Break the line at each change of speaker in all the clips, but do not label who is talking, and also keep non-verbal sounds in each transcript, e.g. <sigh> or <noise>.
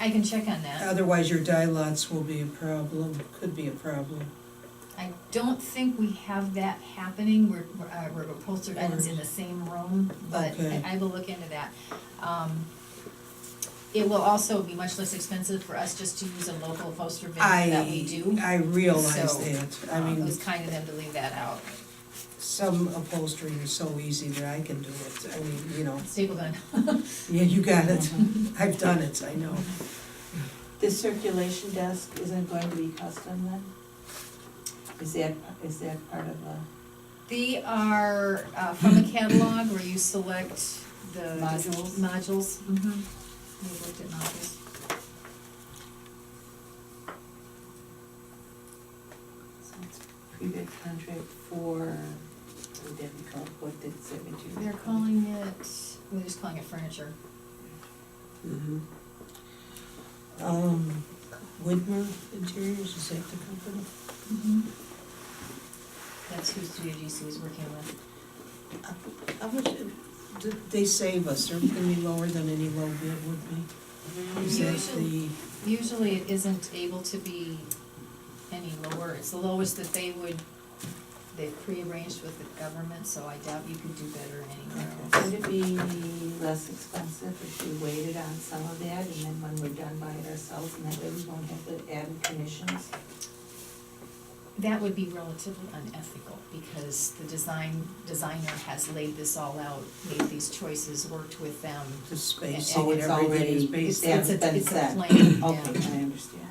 I can check on that.
Otherwise, your die lots will be a problem, could be a problem.
I don't think we have that happening, where, where, uh, where upholstered items in the same room, but
Okay.
I, I will look into that. Um, It will also be much less expensive for us just to use a local upholstered bin that we do.
I, I realize
So,
that, I
Um, It
mean,
was kind of them to leave that out.
some upholstery is so easy that I can do it, I mean, you know,
Staple gun.
<laughs> yeah, you got it, I've done it, I know.
The circulation desk isn't going to be custom then? Is that, is that part of a
<laughs> They are uh, from a catalog where you select the.
Modules?
Modules, mhm. We've looked at modules.
so it's pre-bid contract for, what did we call it, what did Sarah do?
They're calling it, we're just calling it furniture.
Mhm. Um, Widmer Interiors, is that the company?
Mm-hmm. That's who Studio GC is working with.
How much, did they save us, they're gonna be lower than any low bid would be?
Mm-hmm.
Is that the,
Usually- Usually it isn't able to be any lower, it's the lowest that they would, they've prearranged with the government, so I doubt you could do better anywhere else.
Would it be less expensive if we waited on some of that and then when we're done by it ourselves and that way we won't have to add commissions?
That would be relatively unethical, because the design, designer has laid this all out, made these choices, worked with them.
the
it's
spacing and everything
already-
is
it's
based
there.
on?
It's a,
been
it's a
said.
plan, yeah.
Okay, I understand.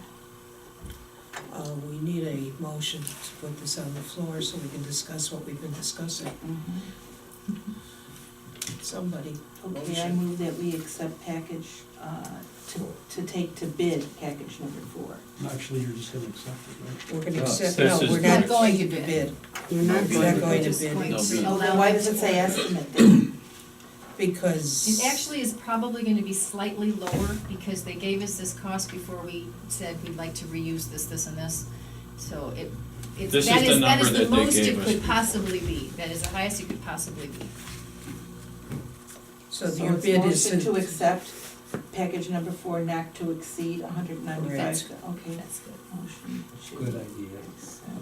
Uh, we need a motion to put this on the floor so we can discuss what we've been discussing.
Mm-hmm.
Somebody,
Okay, I
Motion.
move that we accept package, uh, to, to take to bid, package number four.
Actually, you're just gonna accept it, right?
we're gonna
No,
accept,
Uh,
no,
this is
we're
bid.
not going to bid.
You're not
We're
going
not
to
going to
Just
bid.
going
No
to
bid.
Well,
allow
Oh, then why
it
does it
to
say
work.
estimate then?
Because.
It actually is probably gonna be slightly lower, because they gave us this cost before we said we'd like to reuse this, this, and this. So it, it's,
This
that
is the
is, that is
number
the
that they
most
gave
it
us
could
before.
possibly be, that is the highest it could possibly be.
So your
it's
bid is.
Motion to accept package number four, not to exceed hundred ninety-five,
Correct.
okay,
That's good.
motion to.
Good idea.
accept package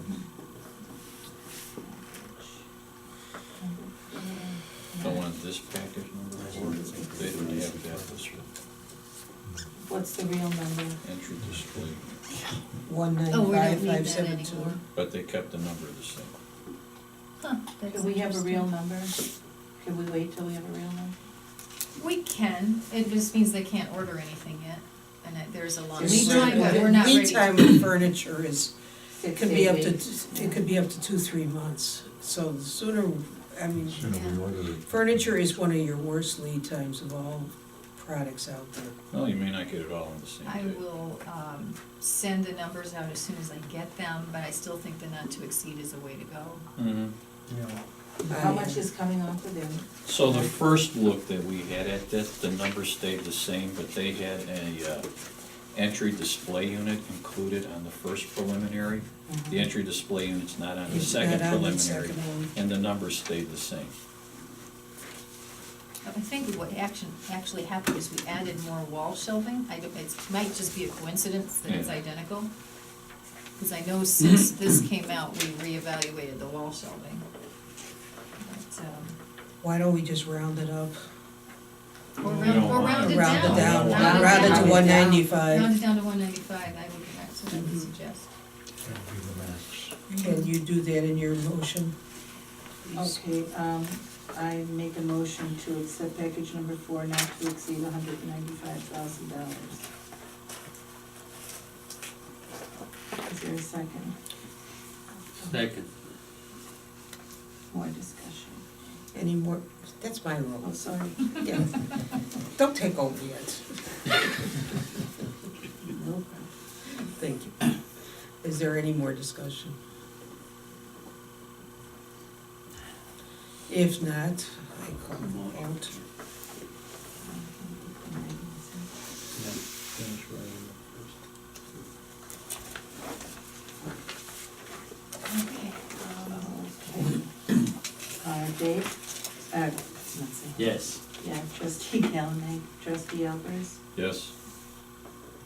number four,
Don't
not-
want this package number four, they don't have that, this
What's the real number?
entry display,
One
Oh, we
ninety-five,
don't need
five
that
seven two.
anymore.
but they kept the number the same.
Huh, that's
Do we have a real
interesting.
number? Can we wait till we have a real number?
We can, it just means they can't order anything yet, and that there's a long
There's
lead time, but
certainly-
Oh, we're not ready.
Lead time of furniture is, it
Six,
could be
eight
up to,
weeks?
it could be up to two, three months. So the sooner, I mean,
Sooner we
Yeah.
order it.
furniture is one of your worst lead times of all products out there.
No, you may not get it all on the same
I
day.
will um, send the numbers out as soon as I get them, but I still think the not to exceed is a way to go.
Mhm.
How
I-
much is coming off of them?
So the first look that we had at this, the number stayed the same, but they had a, uh, entry display unit included on the first preliminary. The entry display unit's not on the
It's not
second
on the
preliminary,
second one.
and the number stayed the same.
I think what action, actually happened is we added more wall shelving. I don't, it might just be a coincidence that it's
Yeah.
identical. Because I know since
<laughs>
this came out, we reevaluated the wall shelving. But, um,
Why don't we just round it up?
Or
We
round,
don't
or
want
round
it.
it
Round
down.
it down,
Round it
round it
down.
to one
Round
ninety-five.
it down to one ninety-five, I would, that's what I would
Mhm.
suggest.
That would be the max.
Can you do that in your motion? please?
Okay, um, I make a motion to accept package number four not to exceed hundred and ninety-five thousand dollars. Is there a second?
Second.
More discussion?
Any more, that's my
Oh,
rule.
sorry,
Yeah. Don't take over yet.
no,
Thank you. Is there any more discussion? If not, I call the vote.
<laughs> Okay.
okay. Uh, Dave, uh, let's see.
Yes.
Yeah, trustee Gallanite, trustee Elbers,
Yes?